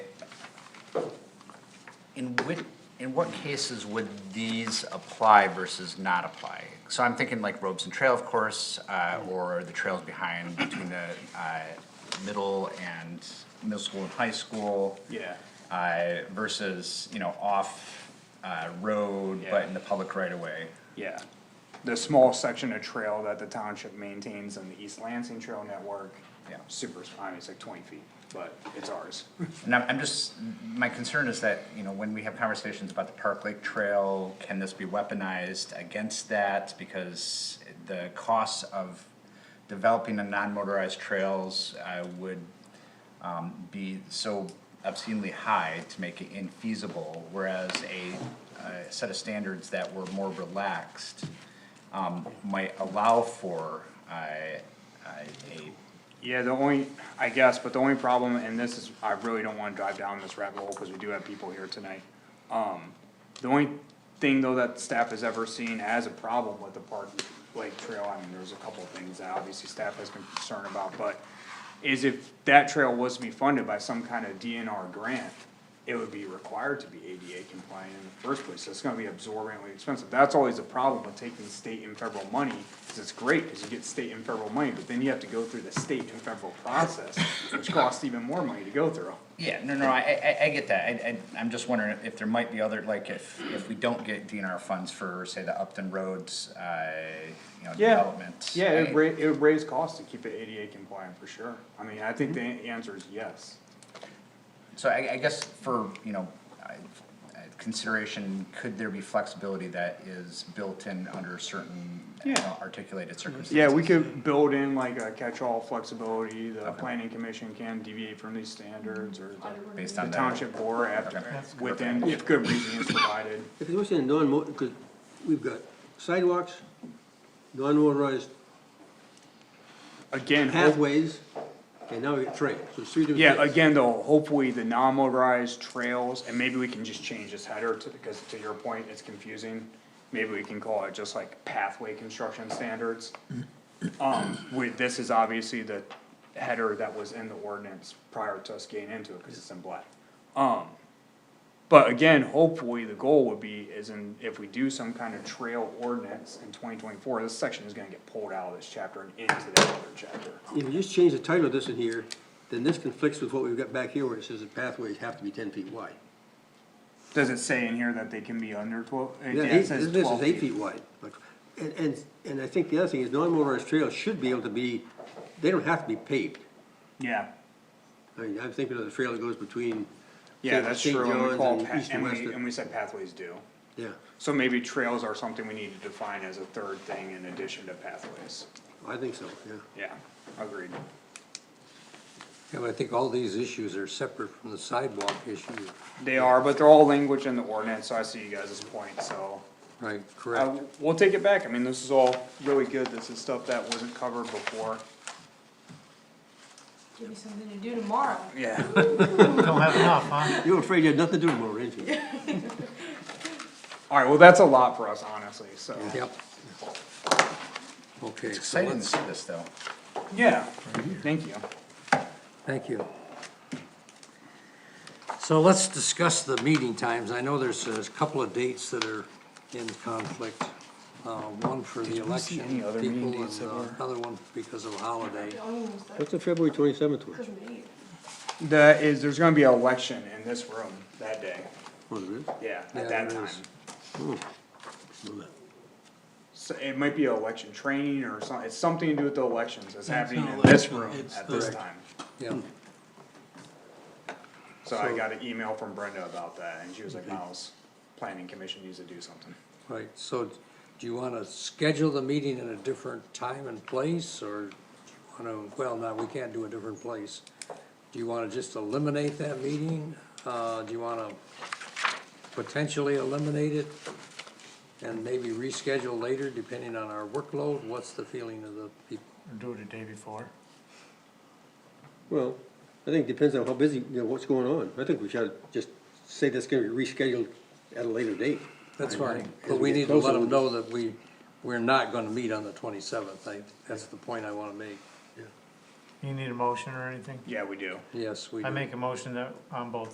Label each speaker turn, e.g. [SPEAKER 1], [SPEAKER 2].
[SPEAKER 1] In which, in what cases would these apply versus not apply? So I'm thinking like Robes and Trail, of course, uh, or the trails behind between the uh, middle and, middle school and high school.
[SPEAKER 2] Yeah.
[SPEAKER 1] Uh, versus, you know, off uh, road, but in the public right of way.
[SPEAKER 2] Yeah, the small section of trail that the township maintains on the East Lansing Trail Network.
[SPEAKER 1] Yeah.
[SPEAKER 2] Super, I mean, it's like twenty feet, but it's ours.
[SPEAKER 1] And I'm, I'm just, my concern is that, you know, when we have conversations about the Park Lake Trail, can this be weaponized against that? Because the costs of developing a non-motorized trails, uh would, um, be so obscenely high to make it infeasible, whereas a, a set of standards that were more relaxed, um, might allow for, uh, uh, a
[SPEAKER 2] Yeah, the only, I guess, but the only problem, and this is, I really don't wanna drive down this rabbit hole, cause we do have people here tonight. Um, the only thing though that staff has ever seen as a problem with the park, like trail, I mean, there's a couple of things that obviously staff has been concerned about, but. Is if that trail was to be funded by some kind of DNR grant, it would be required to be ADA compliant in the first place, so it's gonna be absorbently expensive, that's always a problem with taking state and federal money. Cause it's great, cause you get state and federal money, but then you have to go through the state and federal process, which costs even more money to go through.
[SPEAKER 1] Yeah, no, no, I, I, I- I get that, I, I, I'm just wondering if there might be other, like, if, if we don't get DNR funds for, say, the Upton Roads, uh, you know,
[SPEAKER 2] Yeah,
[SPEAKER 1] development.
[SPEAKER 2] yeah,
[SPEAKER 1] I-
[SPEAKER 2] it ra- it would raise costs to keep it ADA compliant for sure, I mean, I think the an- answer is yes.
[SPEAKER 1] So I, I guess for, you know, I- I- consideration, could there be flexibility that is built in under certain, you
[SPEAKER 2] Yeah.
[SPEAKER 1] know, articulated circumstances?
[SPEAKER 2] Yeah, we could build in like a catch-all flexibility, the planning commission can deviate from these standards, or the-
[SPEAKER 1] Based
[SPEAKER 2] the
[SPEAKER 1] on that.
[SPEAKER 2] township board after,
[SPEAKER 1] Okay.
[SPEAKER 2] within, if good reason is provided.
[SPEAKER 3] If you're saying non-motor, because we've got sidewalks, non-motorized
[SPEAKER 2] Again, hope-
[SPEAKER 3] pathways, and now we got trails, so it's three different
[SPEAKER 2] yeah,
[SPEAKER 3] things.
[SPEAKER 2] again, though, hopefully the non-motorized trails, and maybe we can just change this header to, because to your point, it's confusing. Maybe we can call it just like pathway construction standards. Um, with, this is obviously the header that was in the ordinance prior to us getting into it, cause it's in black. Um, but again, hopefully the goal would be is in, if we do some kind of trail ordinance in twenty twenty-four, this section is gonna get pulled out of this chapter and into that other chapter.
[SPEAKER 3] If you just change the title of this in here, then this conflicts with what we've got back here where it says the pathways have to be ten feet wide.
[SPEAKER 2] Does it say in here that they can be under twelve?
[SPEAKER 3] Yeah, eight- This this is eight feet wide, but, and, and, and I think the other thing is non-motorized trails should be able to be, they don't have to be paved.
[SPEAKER 2] Yeah,
[SPEAKER 3] I mean, I'm thinking of the trail that goes between.
[SPEAKER 2] yeah,
[SPEAKER 3] say,
[SPEAKER 2] that's
[SPEAKER 3] St.
[SPEAKER 2] true, and we
[SPEAKER 3] John's
[SPEAKER 2] call,
[SPEAKER 3] and
[SPEAKER 2] pa-
[SPEAKER 3] east
[SPEAKER 2] and
[SPEAKER 3] west
[SPEAKER 2] we,
[SPEAKER 3] of-
[SPEAKER 2] and we said pathways do.
[SPEAKER 3] Yeah,
[SPEAKER 2] So maybe trails are something we need to define as a third thing in addition to pathways,
[SPEAKER 3] I think so, yeah.
[SPEAKER 2] yeah, agreed.
[SPEAKER 4] Yeah, but I think all these issues are separate from the sidewalk issue,
[SPEAKER 2] They are, but they're all language in the ordinance, so I see you guys' point, so.
[SPEAKER 4] right,
[SPEAKER 2] Uh,
[SPEAKER 4] correct?
[SPEAKER 2] we'll take it back, I mean, this is all really good, this is stuff that wasn't covered before.
[SPEAKER 5] Give me something to do tomorrow.
[SPEAKER 2] Yeah.
[SPEAKER 3] Uh, You're afraid you had nothing to do tomorrow, ain't you?
[SPEAKER 2] Alright, well, that's a lot for us, honestly, so.
[SPEAKER 4] Yep. Okay,
[SPEAKER 1] It's
[SPEAKER 4] so
[SPEAKER 1] exciting to
[SPEAKER 4] let's,
[SPEAKER 1] see this, though.
[SPEAKER 2] Yeah, thank you.
[SPEAKER 4] thank you. So let's discuss the meeting times. I know there's a couple of dates that are in conflict. Uh, one for the election
[SPEAKER 2] any other meeting
[SPEAKER 4] people
[SPEAKER 2] dates
[SPEAKER 4] and
[SPEAKER 2] that
[SPEAKER 4] uh,
[SPEAKER 2] were-
[SPEAKER 4] another one because of a holiday.
[SPEAKER 5] The only one that's-
[SPEAKER 3] What's the February twenty-seventh one?
[SPEAKER 5] doesn't mean.
[SPEAKER 2] The, is, there's gonna be an election in this room that day,
[SPEAKER 4] Oh,
[SPEAKER 3] What is
[SPEAKER 2] yeah,
[SPEAKER 4] Yeah,
[SPEAKER 2] at that
[SPEAKER 4] there
[SPEAKER 2] time.
[SPEAKER 4] is.
[SPEAKER 3] it?
[SPEAKER 2] So it might be election training or some, it's something to do with the elections, it's happening in this room at this time.
[SPEAKER 4] Yeah,
[SPEAKER 2] So I got an email from Brenda about that, and she was like, Miles, planning commission needs to do something.
[SPEAKER 4] right. So do you wanna schedule the meeting in a different time and place or do you wanna, well, no, we can't do a different place. Do you wanna just eliminate that meeting? Uh, do you wanna potentially eliminate it? And maybe reschedule later depending on our workload? What's the feeling of the people?
[SPEAKER 6] Do it a day before.
[SPEAKER 3] Well, I think it depends on how busy, you know, what's going on. I think we should just say that's gonna be rescheduled at a later date.
[SPEAKER 4] That's
[SPEAKER 3] I
[SPEAKER 4] fine,
[SPEAKER 3] agree.
[SPEAKER 4] but we
[SPEAKER 3] As we
[SPEAKER 4] need
[SPEAKER 3] get
[SPEAKER 4] to let
[SPEAKER 3] closer,
[SPEAKER 4] them
[SPEAKER 3] we-
[SPEAKER 4] know that we, we're not gonna meet on the twenty-seventh. I, that's the point I wanna make.
[SPEAKER 6] You need a motion or anything?
[SPEAKER 2] Yeah, we do.
[SPEAKER 4] Yes, we.
[SPEAKER 6] I
[SPEAKER 4] do.
[SPEAKER 6] make a motion that on both